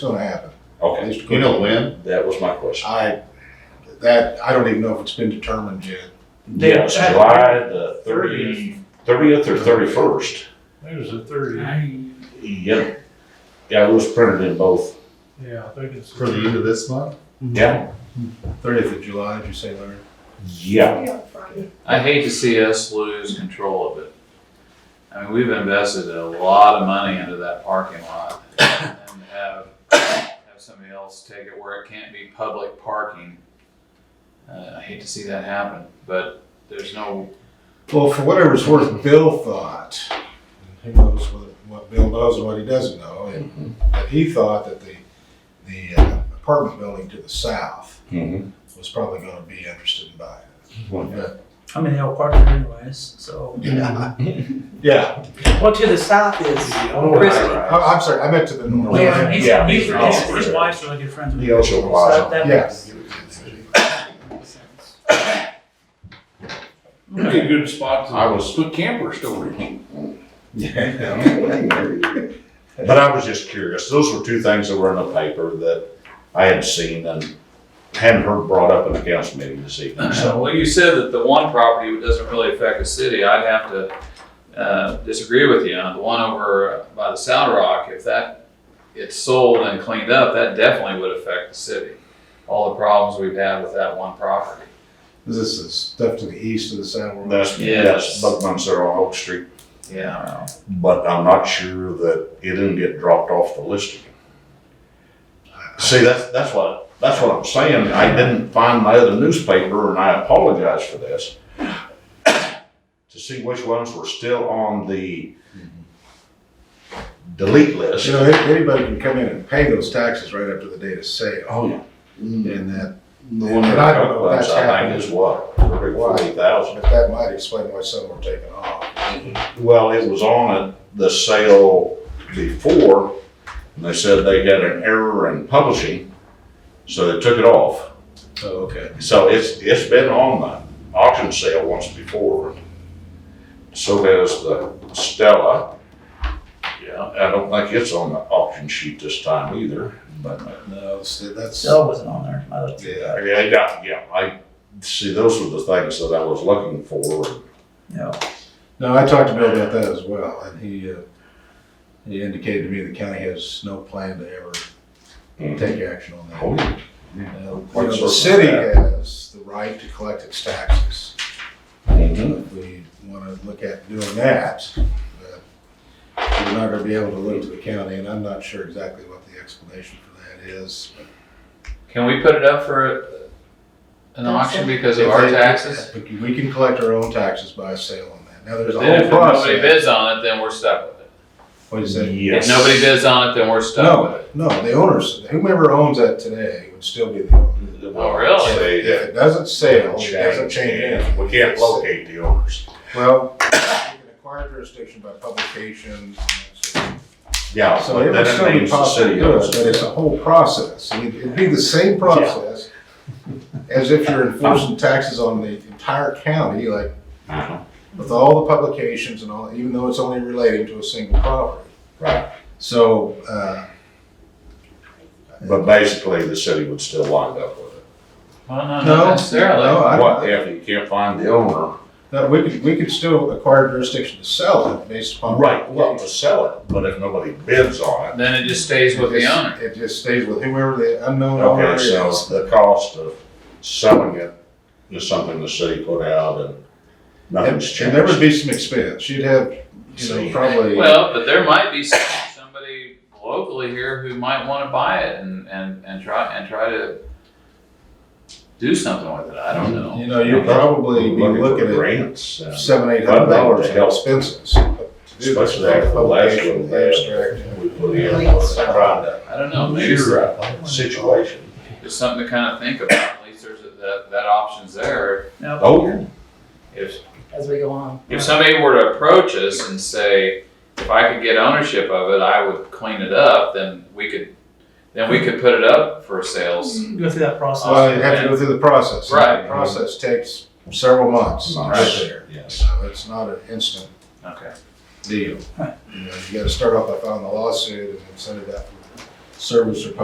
it's gonna happen. Okay, Mr. You know when? that was my question. I, that, I don't even know if it's been determined yet. Yeah, it's July the thirty, thirtieth or thirty-first. There's a thirty, Yep. Yeah, it was printed in both. yeah, I think it's. For the end of this month? Yeah. Thirtieth of July, did you say, Larry? Yeah. I hate to see us lose control of it. I mean, we've invested a lot of money into that parking lot and have, have somebody else take it where it can't be public parking. Uh, I hate to see that happen, but there's no, Well, for whatever it's worth, Bill thought, and who knows what, what Bill knows and what he doesn't know, and, but he thought that the, the uh, apartment building to the south Mhm. was probably gonna be interested in buying I'm in El Parker anyways, so. it. Yeah, Well, to the south is Christie. I, I'm sorry, I meant to the north. Well, he's, Yeah. he's, Yeah. his, his wife's really good friends with The him. Ocho So Plaza. that Yes. makes sense. That'd be a good spot I was- put campers over here. Yeah. But I was just curious. Those were two things that were in the paper that I had seen and hadn't heard brought up in the council meeting this evening. So, Well, you said that the one property doesn't really affect the city. I'd have to uh, disagree with you on the one over by the Sound Rock. If that gets sold and cleaned up, that definitely would affect the city. All the problems we've had with that one property. This is the stuff to the east of the Sound World. that's, that's Yes. Buckman's there on Oak Street. Yeah. but I'm not sure that it didn't get dropped off the list again. See, that's, that's what, that's what I'm saying. I didn't find my other newspaper and I apologize for this. To see which ones were still on the delete list. You know, any- anybody can come in and pay those taxes right after the date of sale. Oh, yeah. And that, The And one that I don't know if was, that's I happened. think is what, thirty, forty thousand. but that might explain why some were taken off. Well, it was on at the sale before and they said they had an error in publishing, so they took it off. Oh, okay. So it's, it's been on the auction sale once before. So has the Stella. Yeah, I don't think it's on the auction sheet this time either, but, uh, No, see, that's, Stella wasn't on there. I looked. yeah. I mean, I got, yeah, I, see, those were the things that I was looking for. No. No, I talked to Bill about that as well, and he, uh, he indicated to me the county has no plan to ever take action on that. Oh, yeah. Now, you Quite know, certain The of city that. has the right to collect its taxes. Mhm. If we wanna look at doing that, but we're not gonna be able to look to the county, and I'm not sure exactly what the explanation for that is. Can we put it up for an auction because of our taxes? But We can collect our own taxes by sale on that. Now, there's a Then whole if nobody process. bids on it, then we're stuck with it. What is it? Yes. If nobody bids on it, then we're stuck with No, no, it. the owners, whomever owns that today would still be the owner. Oh, really? Say If that it doesn't sell, it doesn't change, Oh, change anything. and We can't locate the owners. Well, you can acquire jurisdiction by publication. Yeah, So but it would that still be means the possible, to city do it, owns but it's it. a whole process. I mean, It'd be the same process as if you're enforcing taxes on the entire county, like Uh-huh. with all the publications and all, even though it's only relating to a single property. Right. So, uh, But basically, the city would still wind up with it. Well, no, No, not necessarily. no, I don't- What if you can't find the owner? No, we could, we could still acquire jurisdiction to sell it based upon. Well, to sell it, but if nobody bids on it. Then it just stays with the owner. It just stays with whoever the unknown owner Okay, is. so the cost of selling it is something the city put out and And, nothing's and there would changed. be some expense. You'd have, you know, probably. Well, but there might be some- somebody locally here who might want to buy it and, and, and try, and try to do something with it. I don't know. You know, you'd probably be for looking Grants. at and- seven, eight hundred dollars in Help. expenses. To do this, Especially after the last publication, one we had. abstract. We put in, trying to I don't know. Maybe it's measure a situation. it's something to kind of think about. At least there's a, that, that option's there. No. Oh, If, as we go on. if somebody were to approach us and say, if I could get ownership of it, I would clean it up, then we could, then we could put it up for sales. Mm. Go through that process. Well, you have to go through the process. Right. The Process takes several months to Months. get there. yes. So it's not an instant Okay. deal. You know, you gotta start off by filing the lawsuit and then send it out. service or